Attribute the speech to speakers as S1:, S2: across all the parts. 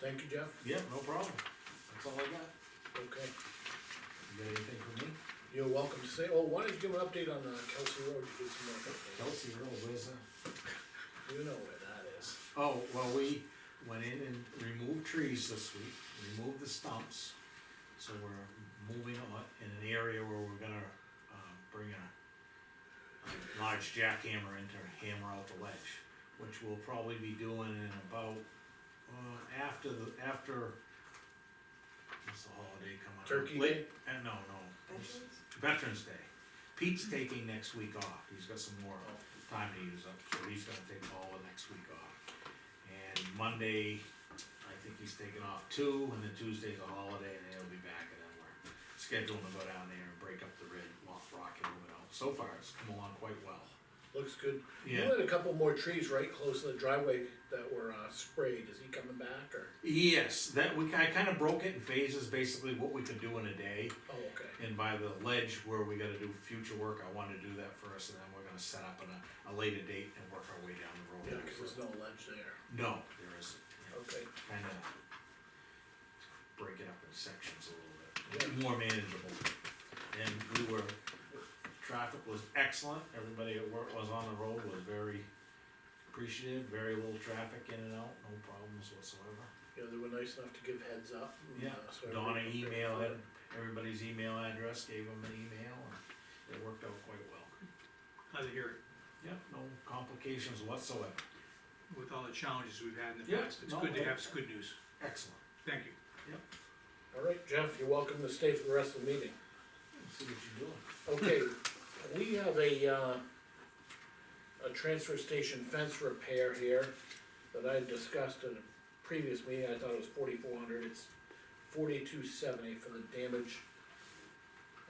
S1: Thank you, Jeff,
S2: Yeah, no problem. That's all I got.
S1: okay,
S2: You got anything for me?
S1: you're welcome to say, oh, why don't you give an update on, uh, Kelsey Road, you did some more updates,
S2: Kelsey, Road, where's that?
S1: you know where that is.
S2: Oh, well, we went in and removed trees this week, removed the stumps. So we're moving on in an area where we're gonna, uh, bring a a large jackhammer in to hammer out the ledge, which we'll probably be doing in about, uh, after the, after, what's the holiday coming up?
S1: Turkey
S2: Late- Uh, no, no.
S3: Veterans?
S2: Veterans Day. Pete's taking next week off, he's got some more time to use up, so he's gonna take all of next week off. And Monday, I think he's taking off two, and then Tuesday's a holiday, and then he'll be back, and then we're scheduling to go down there and break up the red rock, rock and move it out. So far, it's come along quite well.
S1: Looks good. You
S2: Yeah.
S1: had a couple more trees right close to the driveway that were, uh, sprayed, is he coming back, or,
S2: Yes, that, we, I kinda broke it in phases, basically what we could do in a day.
S1: oh, okay,
S2: And by the ledge where we gotta do future work, I wanna do that first, and then we're gonna set up on a, a later date and work our way down the road.
S1: yeah, cause there's no ledge there,
S2: No, there isn't. yeah.
S1: okay,
S2: kind of break it up in sections a little bit, make it more manageable. And we were, traffic was excellent, everybody at work was on the road, was very appreciative, very little traffic in and out, no problems whatsoever.
S1: you know, they were nice enough to give heads up. and,
S2: Yeah,
S1: uh, so
S2: Donna
S1: everybody prepared
S2: emailed
S1: for it.
S2: it, everybody's email address, gave them an email, and it worked out quite well.
S4: Glad to hear it,
S2: Yep, no complications whatsoever,
S4: with all the challenges we've had in the
S2: Yeah,
S4: past, it's
S2: no,
S4: good to
S2: I-
S4: have, it's good news,
S2: excellent.
S4: thank you.
S1: All right, Jeff, you're welcome to stay for the rest of the meeting.
S2: See what you're doing.
S1: Okay, we have a, uh, a transfer station fence repair here that I discussed in a previous meeting, I thought it was forty-four hundred, it's forty-two seventy for the damage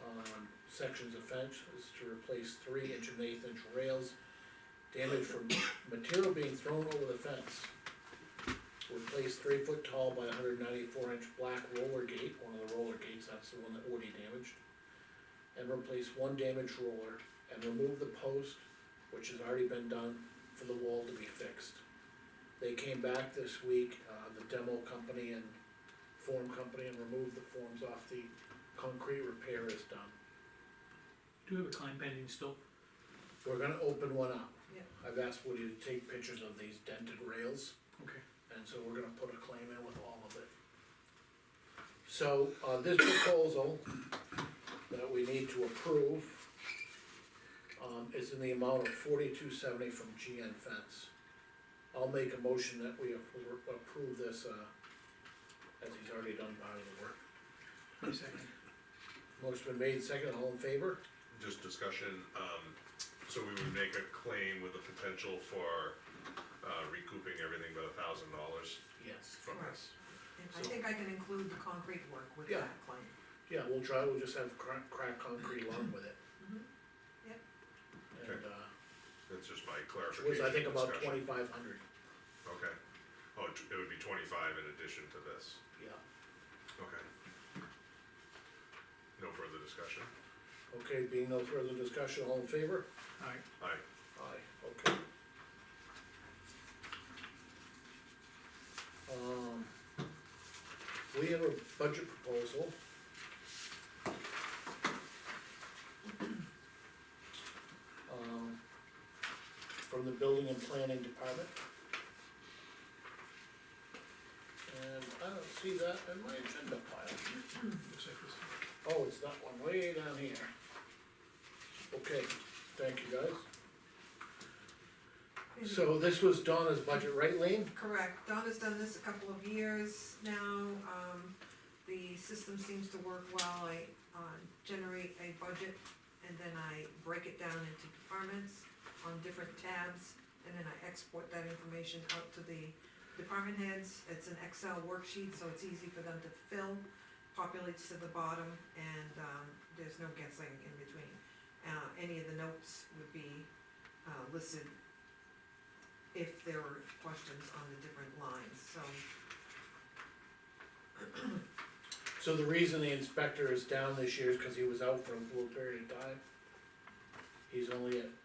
S1: um, sections of fence, is to replace three inch and eighth inch rails, damage from material being thrown over the fence. Replace three foot tall by hundred ninety-four inch black roller gate, one of the roller gates, that's the one that Woody damaged and replace one damaged roller and remove the post, which has already been done, for the wall to be fixed. They came back this week, uh, the demo company and form company and removed the forms off the concrete repair is done.
S4: Do we have a claim pending still?
S1: We're gonna open one up.
S3: Yeah.
S1: I've asked Woody to take pictures of these dented rails.
S4: Okay.
S1: And so we're gonna put a claim in with all of it. So, uh, this proposal that we need to approve, um, is in the amount of forty-two seventy from GN Fence. I'll make a motion that we approve, approve this, uh, as he's already done part of the work.
S4: One second.
S1: Motion been made, second, all in favor?
S5: just discussion, um, so we would make a claim with the potential for, uh, recouping everything but a thousand dollars
S1: Yes.
S5: from this.
S3: And I think I can include the concrete work with
S1: Yeah.
S3: that claim.
S1: Yeah, we'll try, we'll just have crack, crack concrete along with it.
S3: Yep.
S1: And, uh,
S5: That's just my
S1: which was
S5: clarification.
S1: I think about
S5: discussion.
S1: twenty-five hundred,
S5: Okay, oh, it it would be twenty-five in addition to this,
S1: yeah.
S5: okay. No further discussion,
S1: Okay, being no further discussion, all in favor?
S4: Alright,
S5: aye,
S1: Aye. Okay. Um, we have a budget proposal. Um, from the building and planning department. And I don't see that in my agenda pile.
S4: looks like this.
S1: Oh, it's that one way down here. Okay, thank you guys. So this was Donna's budget, right Lean?
S3: Correct, Donna's done this a couple of years now, um, the system seems to work well, I, uh, generate a budget, and then I break it down into departments on different tabs, and then I export that information out to the department heads, it's an Excel worksheet, so it's easy for them to fill, populates to the bottom, and, um, there's no guessing in between. Uh, any of the notes would be, uh, listed if there were questions on the different lines, so.
S1: So the reason the inspector is down this year is cause he was out for a little period of time. He's only at